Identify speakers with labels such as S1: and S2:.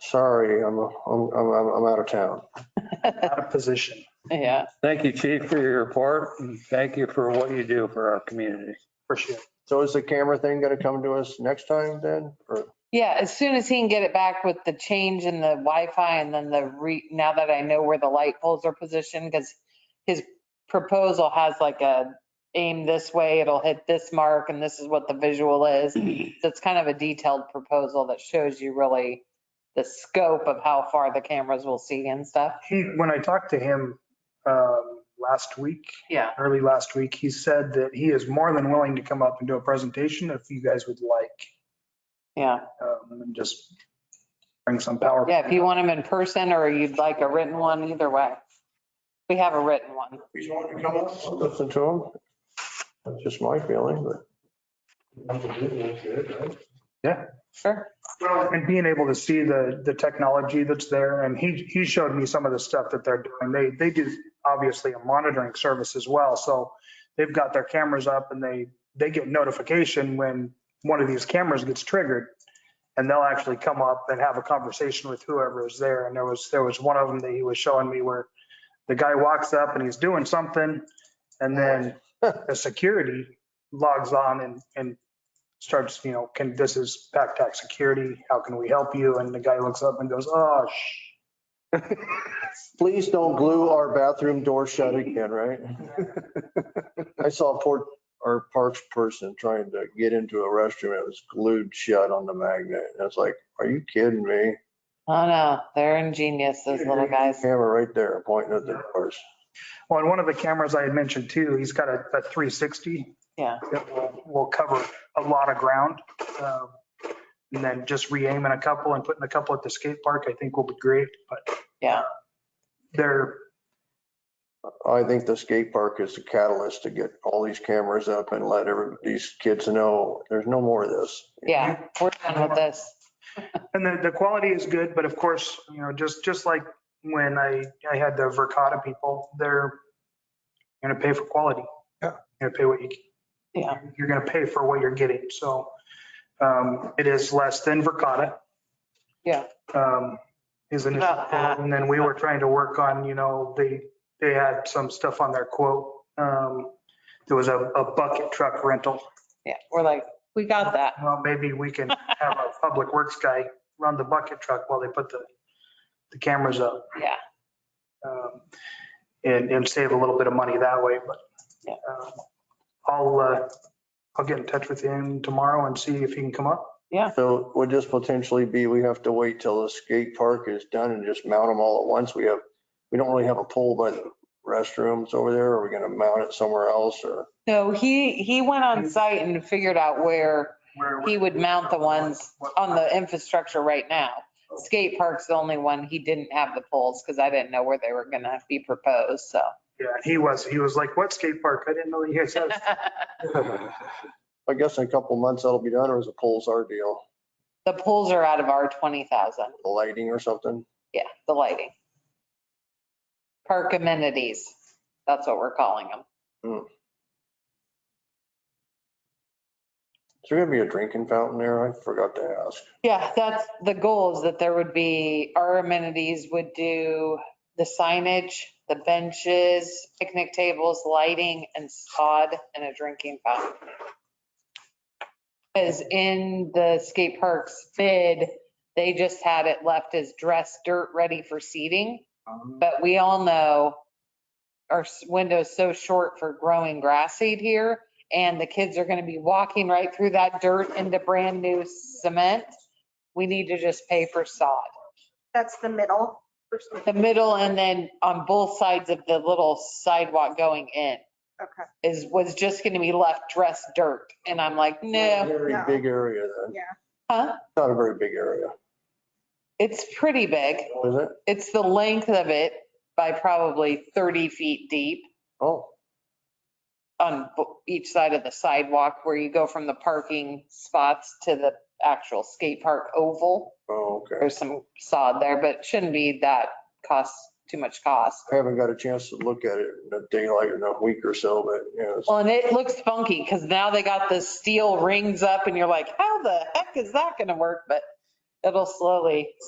S1: sorry, I'm, I'm, I'm, I'm out of town.
S2: out of position.
S3: Yeah,
S4: Thank you, chief, for your report. and Thank you for what you do for our community.
S2: For sure.
S1: So is the camera thing going to come to us next time then? Or,
S3: yeah, as soon as he can get it back with the change in the Wi-Fi and then the re, now that I know where the light poles are positioned, because his proposal has like a aim this way, it'll hit this mark and this is what the visual is. So it's kind of a detailed proposal that shows you really the scope of how far the cameras will see and stuff.
S2: He, when I talked to him um, last week,
S3: Yeah.
S2: early last week, he said that he is more than willing to come up and do a presentation if you guys would like,
S3: Yeah,
S2: um, and just bring some power.
S3: yeah, if you want them in person or you'd like a written one, either way. We have a written one.
S1: you want to come up? I'll Listen to him. That's just my feeling, but.
S3: Sure.
S2: Well, and being able to see the, the technology that's there, and he, he showed me some of the stuff that they're doing. They, they do obviously a monitoring service as well, so they've got their cameras up and they, they get notification when one of these cameras gets triggered. And they'll actually come up and have a conversation with whoever is there. And there was, there was one of them that he was showing me where the guy walks up and he's doing something, and then the security logs on and, and starts, you know, can, this is PacTac Security, how can we help you? And the guy looks up and goes, oh, shh.
S1: Please don't glue our bathroom door shut again, right? I saw a poor, our parks person trying to get into a restroom. It was glued shut on the magnet. And I was like, are you kidding me?
S3: Oh no, they're ingenious, those little guys.
S1: Camera right there pointing at the doors.
S2: Well, and one of the cameras I had mentioned too, he's got a, a 360.
S3: Yeah.
S2: That will, will cover a lot of ground. um, And then just re-aiming a couple and putting a couple at the skate park, I think will be great, but.
S3: Yeah.
S2: They're,
S1: I think the skate park is the catalyst to get all these cameras up and let every, these kids know there's no more of this.
S3: Yeah, we're done with this.
S2: And the, the quality is good, but of course, you know, just, just like when I, I had the Verkada people, they're gonna pay for quality.
S1: Yeah.
S2: Gonna pay what you,
S3: Yeah.
S2: you're gonna pay for what you're getting, so, um, it is less than Verkada.
S3: Yeah.
S2: Um, is an,
S3: About half.
S2: and then we were trying to work on, you know, they, they had some stuff on their quote. Um, there was a, a bucket truck rental.
S3: Yeah, we're like, we got that.
S2: Well, maybe we can have our public works guy run the bucket truck while they put the, the cameras up.
S3: Yeah.
S2: um, And, and save a little bit of money that way, but.
S3: Yeah.
S2: um, I'll, uh, I'll get in touch with him tomorrow and see if he can come up.
S1: So would this potentially be, we have to wait till the skate park is done and just mount them all at once? We have, we don't really have a pole by the restrooms over there. Are we going to mount it somewhere else or?
S3: No, he, he went on site and figured out where
S2: Where-
S3: he would mount the ones on the infrastructure right now. Skate park's the only one he didn't have the poles because I didn't know where they were gonna be proposed, so.
S2: Yeah, he was, he was like, what skate park? I didn't know you guys had.
S1: I guess in a couple months that'll be done or is the poles our deal?
S3: The poles are out of our 20,000.
S1: The lighting or something?
S3: Yeah, the lighting. Park amenities, that's what we're calling them.
S1: Is there going to be a drinking fountain there? I forgot to ask.
S3: Yeah, that's the goal is that there would be, our amenities would do the signage, the benches, picnic tables, lighting and sod and a drinking fountain. Because in the skate park's bid, they just had it left as dress dirt ready for seating. But we all know our s- window's so short for growing grass seed here and the kids are going to be walking right through that dirt into brand new cement. We need to just pay for sod.
S5: That's the middle. first one.
S3: The middle and then on both sides of the little sidewalk going in
S5: Okay,
S3: is, was just going to be left dressed dirt. And I'm like, no,
S1: Very
S5: No.
S1: big area then.
S5: yeah.
S3: huh?
S1: Not a very big area,
S3: It's pretty big.
S1: is it?
S3: It's the length of it by probably 30 feet deep.
S1: Oh.
S3: on bo- each side of the sidewalk where you go from the parking spots to the actual skate park oval.
S1: Oh, okay.
S3: There's some sod there, but it shouldn't be that cost, too much cost.
S1: I haven't got a chance to look at it in a daylight in a week or so, but you know, it's-
S3: Well, and it looks funky because now they got the steel rings up and you're like, how the heck is that going to work? But it'll slowly